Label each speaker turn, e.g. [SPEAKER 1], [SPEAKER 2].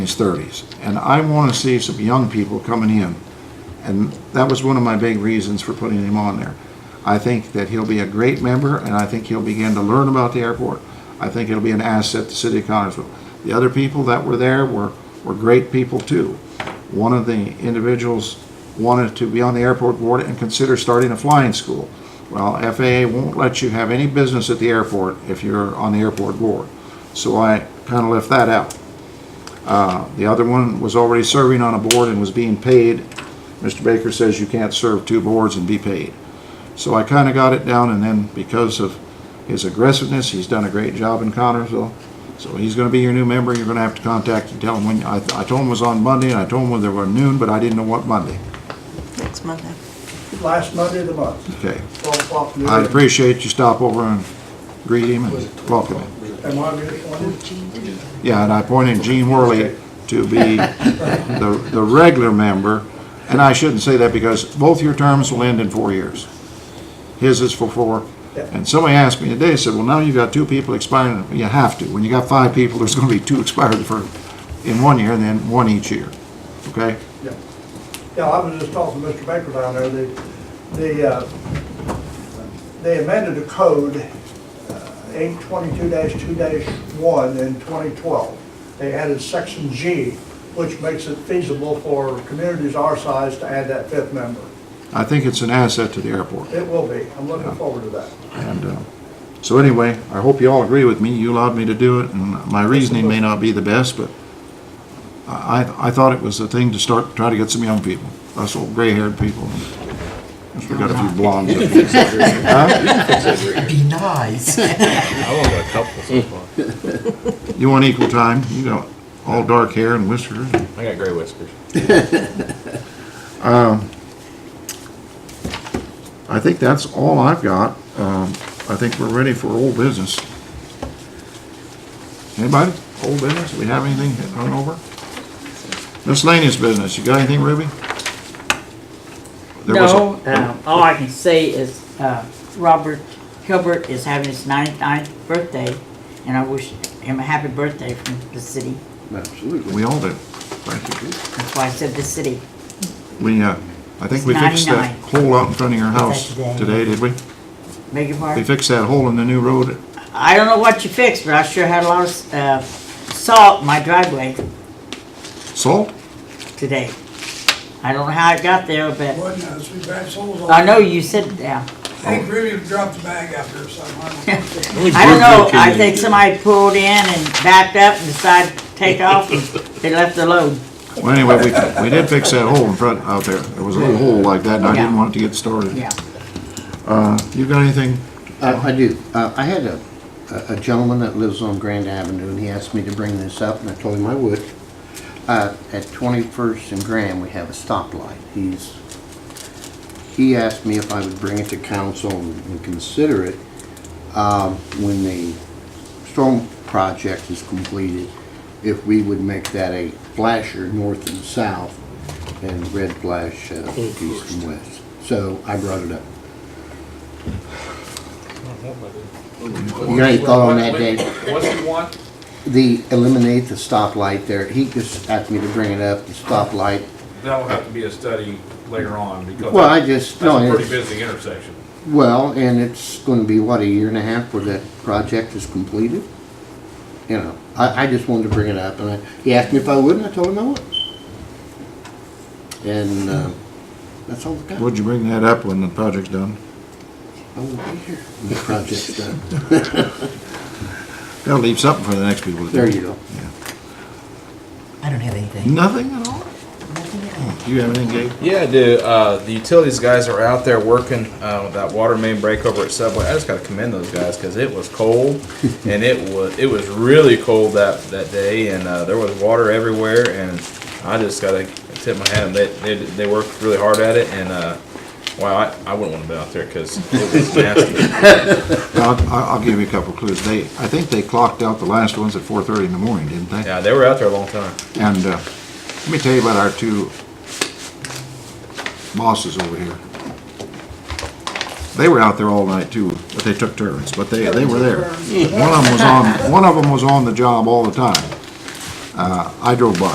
[SPEAKER 1] his 30s. And I want to see some young people coming in. And that was one of my big reasons for putting him on there. I think that he'll be a great member, and I think he'll begin to learn about the airport. I think it'll be an asset to City of Connersville. The other people that were there were, were great people too. One of the individuals wanted to be on the airport board and consider starting a flying school. Well, FAA won't let you have any business at the airport if you're on the airport board. So I kind of left that out. The other one was already serving on a board and was being paid. Mr. Baker says you can't serve two boards and be paid. So I kind of got it down, and then because of his aggressiveness, he's done a great job in Connersville. So he's going to be your new member. You're going to have to contact and tell him when, I, I told him it was on Monday, and I told him whether it was noon, but I didn't know what Monday.
[SPEAKER 2] Next Monday.
[SPEAKER 3] last Monday of the month,
[SPEAKER 1] Okay.
[SPEAKER 3] 12 o'clock. in the
[SPEAKER 1] I'd
[SPEAKER 3] morning.
[SPEAKER 1] appreciate you stop over and greet him and welcome him.
[SPEAKER 3] Am I gonna get one?
[SPEAKER 1] Yeah, and I appointed Gene Worley to be the, the regular member, and I shouldn't say that because both your terms will end in four years. His is for four, and somebody asked me today, said, well, now you've got two people expiring, you have to, when you got five people, there's gonna be two expired for, in one year and then one each year, okay?
[SPEAKER 3] Yeah. Yeah, I was just talking to Mr. Baker down there, the, the, uh, they amended the code, uh, eight twenty-two two one in twenty twelve. They added section G, which makes it feasible for communities our size to add that fifth member.
[SPEAKER 1] I think it's an asset to the airport,
[SPEAKER 3] It will be, I'm looking forward to that.
[SPEAKER 1] and, uh, so anyway, I hope you all agree with me, you allowed me to do it, and my reasoning may not be the best, but I, I- I thought it was the thing to start, try to get some young people, us old gray-haired people. We got a few blondes. up here.
[SPEAKER 4] Be nice.
[SPEAKER 5] I want a couple so
[SPEAKER 4] Mm.
[SPEAKER 5] far.
[SPEAKER 1] You want equal time, you got all dark hair and whiskers.
[SPEAKER 5] I got gray whiskers.
[SPEAKER 1] I think that's all I've got. Um, I think we're ready for old business. Anybody? Old business? We have anything hit run over? Miscellaneous business. You got anything, Ruby? There was a- Oh,
[SPEAKER 6] No, uh, all I can say is, uh, Robert Hilbert is having his 99th birthday, and I wish him a happy birthday from the city.
[SPEAKER 4] Absolutely.
[SPEAKER 1] We all do. Thank you.
[SPEAKER 6] That's why I said the city.
[SPEAKER 1] We, uh, I think we fixed that
[SPEAKER 6] 99.
[SPEAKER 1] hole out in front of your house
[SPEAKER 6] today?
[SPEAKER 1] today, did we?
[SPEAKER 6] Beg your
[SPEAKER 1] We
[SPEAKER 6] pardon?
[SPEAKER 1] fixed that hole in the new road.
[SPEAKER 6] I don't know what you fixed, but I sure had a lot of, uh, salt in my driveway
[SPEAKER 1] Salt?
[SPEAKER 6] today. I don't know how it got there, but
[SPEAKER 7] Wasn't us, we grabbed uh, souls
[SPEAKER 6] I
[SPEAKER 7] on.
[SPEAKER 6] know you said, yeah.
[SPEAKER 7] I think Ruby dropped the bag after her somehow.
[SPEAKER 6] I don't know, I think somebody pulled in and backed up and decided to take off, and they left the load.
[SPEAKER 1] Well, anyway, we, we did fix that hole in front, out there. There was a little hole like that and I didn't
[SPEAKER 6] Yeah.
[SPEAKER 1] want it to get started.
[SPEAKER 6] Yeah.
[SPEAKER 1] You got anything?
[SPEAKER 4] I I do. Uh, I had a a gentleman that lives on Grand Avenue, and he asked me to bring this up, and I told him I would. Uh, At 21st and Grand, we have a stoplight. He's, he asked me if I would bring it to council and and consider it um, when the storm project is completed, if we would make that a flasher north and south, and red flash uh, east and west. So I brought it up. You got any thought on that, Dave?
[SPEAKER 5] What's he want?
[SPEAKER 4] The, eliminate the stoplight there. He just asked me to bring it up, the stoplight.
[SPEAKER 5] That'll have to be a study later on because
[SPEAKER 4] Well, I just, no,
[SPEAKER 5] that's a pretty
[SPEAKER 4] it's,
[SPEAKER 5] busy intersection.
[SPEAKER 4] well, and it's gonna be, what, a year and a half where that project is completed? You know, I, I just wanted to bring it up, and I, he asked me if I would, and I told him I would. And, uh, that's all we got.
[SPEAKER 1] Would you bring that up when the project's done?
[SPEAKER 4] I won't be here. when The project's done.
[SPEAKER 1] Gotta leave something for the next people to do.
[SPEAKER 4] There you go.
[SPEAKER 2] I don't have anything.
[SPEAKER 1] Nothing at all? Do you have anything, Gabe?
[SPEAKER 8] Yeah, I do. Uh, the utilities guys are out there working uh, with that water main break over at Subway. I just got to commend those guys because it was cold, and it was it was really cold that that day, and uh, there was water everywhere. And I just got to tip my hat. They they they worked really hard at it, and uh, wow, I, I wouldn't want to be out there because it was nasty.
[SPEAKER 1] I'll, I'll I'll give you a couple clues. They, I think they clocked out the last ones at four thirty in the morning, didn't they?
[SPEAKER 8] yeah, they were out there a long time.
[SPEAKER 1] And uh, let me tell you about our two bosses over here. They were out there all night too, but they took turns, but they, they were there. One of them was on, one of them was on the job all the time. Uh, I drove by.